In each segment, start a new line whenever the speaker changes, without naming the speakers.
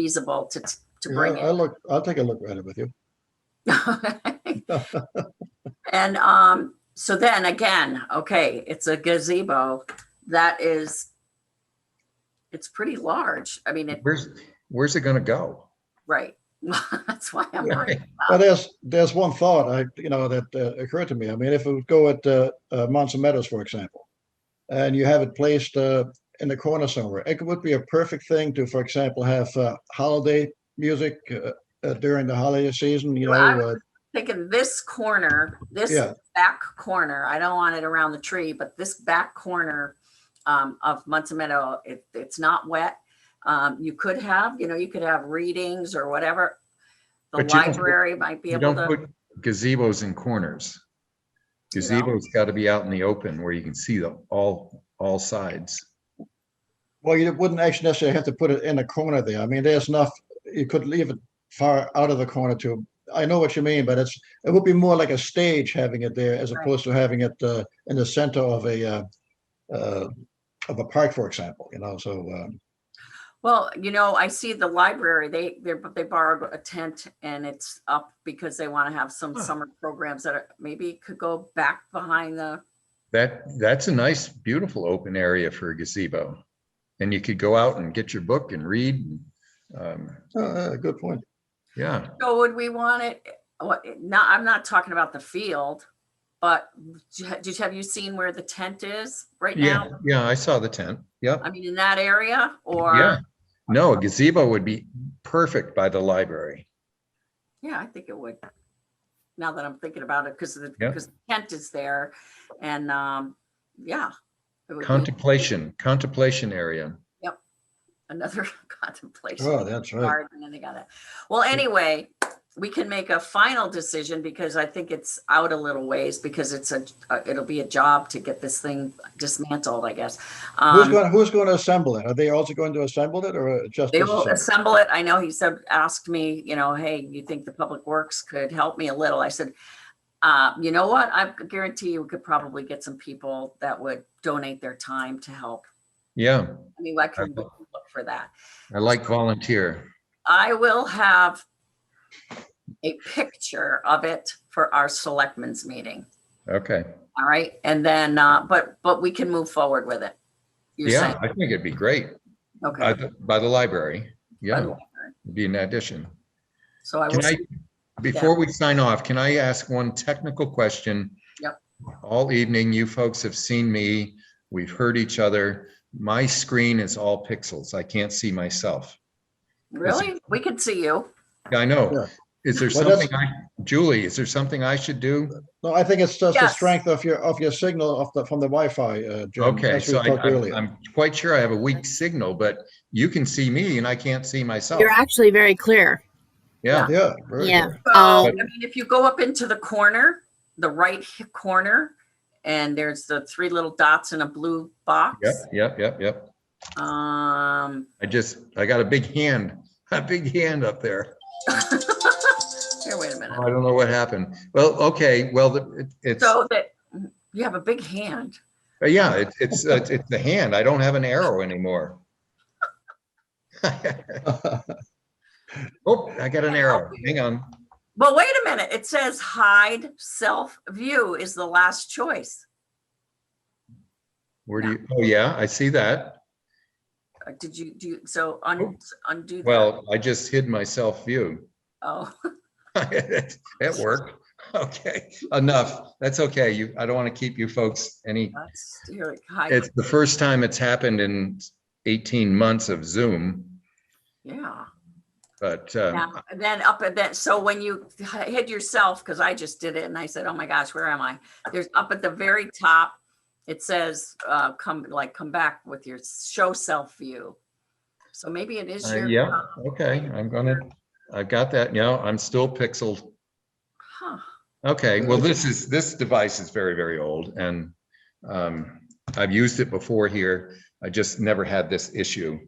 feasible to, to
Yeah,
bring
I'll
it.
look, I'll take a look at it with you.
And, um, so then again, okay, it's a gazebo that is, it's pretty large. I mean, it,
Where's, where's it gonna go?
right. That's why I'm like,
Right.
But there's, there's one thought I, you know, that uh, occurred to me. I mean, if it would go at uh, uh, Monson Meadows, for example, and you have it placed uh, in the corner somewhere, it would be a perfect thing to, for example, have uh, holiday music uh, uh, during the holiday season. You know,
Well, I
uh,
thinking this corner, this
Yeah.
back corner, I don't want it around the tree, but this back corner um, of Munson Meadow, it, it's not wet. Um, you could have, you know, you could have readings or whatever. The
But you don't-
library might be
You
able
don't
to,
put gazebos in corners.
You know?
Gazebo's gotta be out in the open where you can see the, all, all sides.
well, you wouldn't actually necessarily have to put it in a corner there. I mean, there's enough. You could leave it far out of the corner too. I know what you mean, but it's it would be more like a stage having it there as
Right.
opposed to having it uh, in the center of a uh, uh, of a park, for example. You know, so um,
well, you know, I see the library, they, they're, they borrowed a tent and it's up because they want to have some
Huh.
summer programs that are, maybe it could go back behind the,
That, that's a nice, beautiful open area for a gazebo. And you could go out and get your book and read. um,
uh, uh, good point.
Yeah,
So would we want it, what, not, I'm not talking about the field, but j- did, have you seen where the tent is right
yeah,
now?
yeah, I saw the tent. Yep.
I mean, in that area
Yeah,
or,
no, a gazebo would be perfect by the library.
yeah, I think it would. Now that I'm thinking about it, because the,
Yeah.
because the tent is there and, um, yeah. it would be
Contemplation, contemplation area.
Another contemplation.
Oh, that's right.
garden and they got it. Well, anyway, we can make a final decision because I think it's out a little ways because it's a, uh, it'll be a job to get this thing dismantled, I guess.
Who's
Um,
going Who's going to assemble it? Are they also going to assemble it, or uh, just
They will
disassemble?
assemble it. I know he said, asked me, you know, hey, you think the public works could help me a little? I said, uh, you know what? I guarantee you we could probably get some people that would donate their time to help.
Yeah,
I mean, I can
Okay.
look for that.
I like volunteer.
I will have a picture of it for our selectmen's meeting.
Okay.
All right. And then, uh, but, but we can move forward with it. You're saying,
Yeah, I think it'd be great by
okay.
the, by the library. Yeah,
By the way,
it'd be an addition.
So I will,
Can I,
s-
before we sign off, can I ask one technical question?
Yep.
All evening, you folks have seen me, we've heard each other. My screen is all pixels. I can't see myself.
really? We can see you.
I know.
Yeah.
Is there
Well, that's-
something I, Julie, is there something I should do?
No, I think it's just the
Yes.
strength of your of your signal of the from the Wi-Fi. Uh, Jim,
Okay,
as we
so I,
talked
I'm-
earlier.
I'm quite sure I have a weak signal, but you can see me and I can't see myself.
You're actually very clear.
Yeah,
yeah, very
Yeah.
good.
So, I
Um,
mean, if you go up into the corner, the right h- corner, and there's the three little dots in a blue box.
yep, yep, yep, yep.
Um,
I just, I got a big hand, a big hand up there.
here, wait a minute.
I don't know what happened. Well, okay, well, the- it's, uh,
So that, you have a big hand.
yeah, it- it's, it's it's the hand. I don't have an arrow anymore. Oh, I got an arrow. Hang on.
Well, wait a minute. It says hide self view is the last choice.
Where do you, oh, yeah, I see that.
Uh, Did you do, so un- undo? that.
Oh. Well, I just hid my self-view.
Oh,
It worked. Okay, enough. That's okay. You, I don't want to keep you folks any,
that's, you're like, hide,
it's the first time it's happened in 18 months of Zoom,
yeah.
but uh,
Now, and Then up at that, so when you h- hid yourself, because I just did it and I said, oh my gosh, where am I? There's up at the very top, it says, uh, come, like, come back with your show self view. So maybe it is
uh,
your.
yeah, okay, I'm gonna, I've got that now. I'm still pixeled.
Huh,
Okay, well, this is, this device is very, very old and um, I've used it before here. I just never had this issue.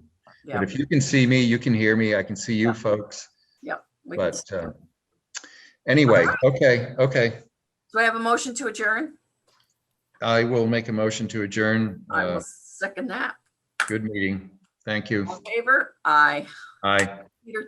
yeah.
But if you can see me, you can hear me, I can see you folks.
we can
But
s-
uh, anyway, okay, okay.
Do I have a motion to adjourn?
I will make a motion to adjourn.
I will
Uh,
second that.
Good meeting. Thank you.
All in Favor? Aye.
Aye.
computer